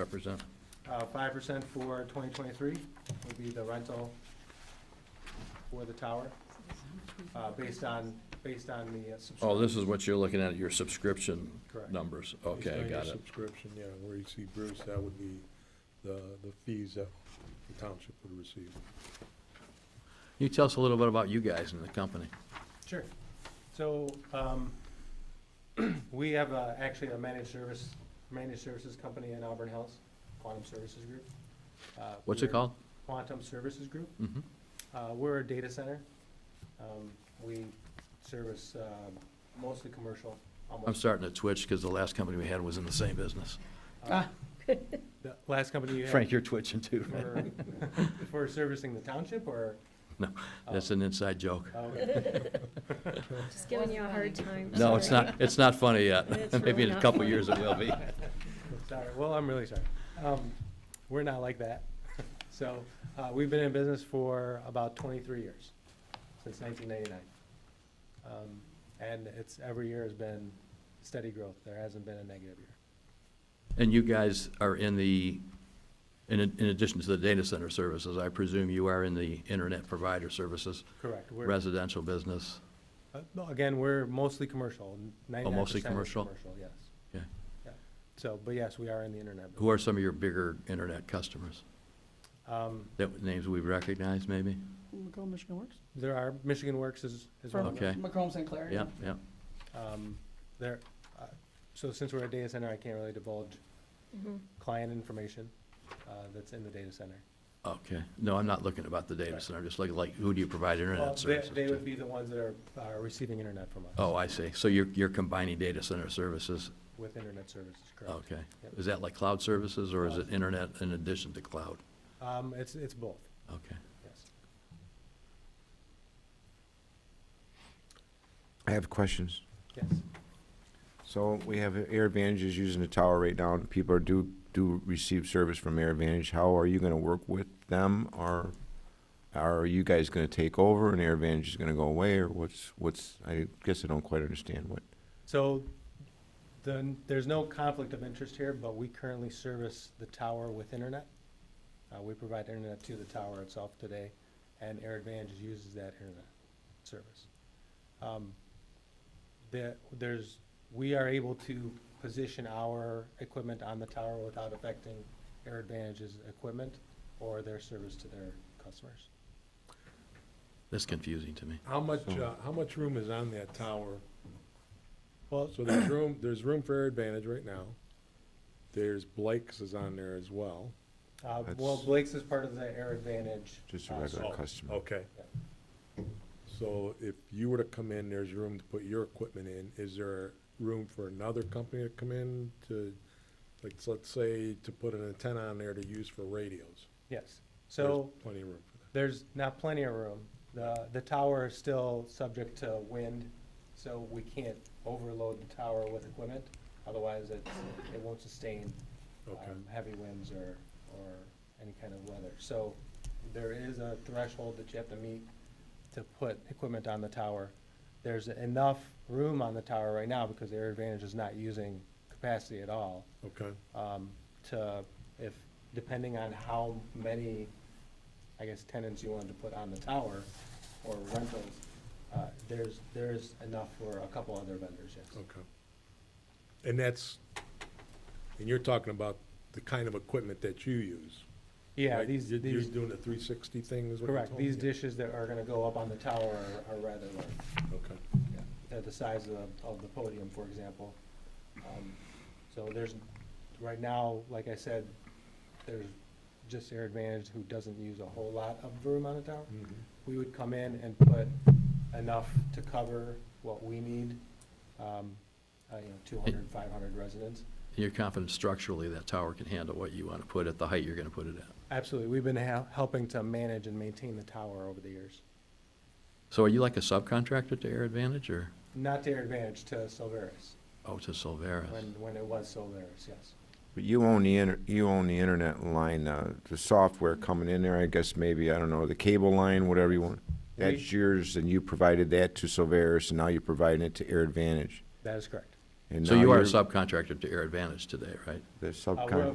represent? Uh, Five percent for twenty twenty-three would be the rental for the tower, uh, based on, based on the uh, subscription. Oh, this is what you're looking at, your subscription Correct. numbers. Okay, I Based on your got it. Subscription, yeah, where you see Bruce, that would be the, the fees that the township would receive. You tell us a little bit about you guys and the company. Sure. So, um, we have uh, actually a managed service, managed services company in Auburn Hills, Quantum Services Group. Uh, What's it we're- called? Quantum Services Group. Mhm. Uh, We're a data center. Um, We service um, mostly commercial, I'm almost. starting to twitch because the last company we had was in the same business. Uh, The last company you had? Frank, you're twitching too. right? for- For servicing the township or? No, that's an inside joke. Oh, okay. Just giving you a hard time. No, it's sorry. not, it's not funny yet. It's Maybe really in a not couple funny. years it will be. Sorry, well, I'm really sorry. Um, We're not like that. So uh, we've been in business for about 23 years, since 1999. Um, And it's, every year has been steady growth. There hasn't been a negative year. And you guys are in the, in, in addition to the data center services, I presume you are in the internet provider services, Correct. We're- residential business. Uh, no, Again, we're mostly commercial, ninety-nine Oh, mostly percent is commercial? commercial, yes. Okay. Yeah. So, but yes, we are in the internet. Who are some of your bigger internet customers? Um, That, names we recognize maybe? Macomb, Michigan Works? there are, Michigan Works is, is one From of them. Okay. Macomb, St. Clair. Yeah, yeah. Um, there, uh, so since we're a data center, I can't really divulge Mhm. client information, uh, that's in the data center. Okay. No, I'm not looking about the data Right. center. I'm just looking like, who do you provide Well, internet they- services They would to? be the ones that are, are receiving internet from us Oh, I see. So you're, you're combining data center services? with internet services, correct? Okay. Yep. Is that like cloud services or is it Cloud. internet in addition to cloud? Um, it's, it's both, Okay. yes. I have questions. Yes, So we have Air Advantage is using the tower right now, and people are do, do receive service from Air Advantage. How are you gonna work with them, or are you guys gonna take over and Air Advantage is gonna go away, or what's, what's, I guess I don't quite understand what. so then, there's no conflict of interest here, but we currently service the tower with internet. Uh, we provide internet to the tower itself today, and Air Advantage uses that internet service. Um, There, there's, we are able to position our equipment on the tower without affecting Air Advantage's equipment or their service to their customers. That's confusing to me. How much, So- uh, how much room is on that tower? Well, So there's room, there's room for Air Advantage right now. There's Blake's is on there as well. uh, well, That's- Blake's is part of the Air Advantage. Just a uh, regular so- Oh, customer. Okay. So if you were to come in, there's room to put your equipment in. Is there room for another company to come in to, like, let's say, to put an antenna on there to use for radios? Yes, There's so. Plenty of room for that. There's not plenty of room. The, the tower is still subject to wind, so we can't overload the tower with equipment. Otherwise, it, it won't sustain um, Okay. heavy winds or, or any kind of weather. So there is a threshold that you have to meet to put equipment on the tower. There's enough room on the tower right now because Air Advantage is not using capacity at all Okay, um, to, if, depending on how many, I guess, tenants you wanted to put on the tower or rentals, uh, there's, there's enough for a couple other vendors, yes. okay. And that's, and you're talking about the kind of equipment that you use? Yeah, right? these, You're- You're these, doing the three sixty thing is what you correct, told these me? dishes that are gonna go up on the tower are- are rather large. Okay, They're the size of, of the podium, for example. Um, So there's, right now, like I said, there's just Air Advantage who doesn't use a whole lot of room on the tower. Mhm. we would come in and put enough to cover what we need, um, uh, you know, 200, 500 residents. You're confident structurally that tower can handle what you want to put at the height you're going to put it at? Absolutely. We've been hel- helping to manage and maintain the tower over the years. So are you like a subcontractor to Air Advantage or, Not to our advantage, to Silveris, oh, to Solveras? when, when it was Silveris, yes. But you own the, inter- you own the internet line, uh, the software coming in there, I guess maybe, I don't know, the cable line, whatever you want. That's yours, and you provided that to Silveris, and now you're providing it to Air Advantage. That is correct. And So now you are a you're subcontractor to Air Advantage today, right? The Uh, we're- subcon.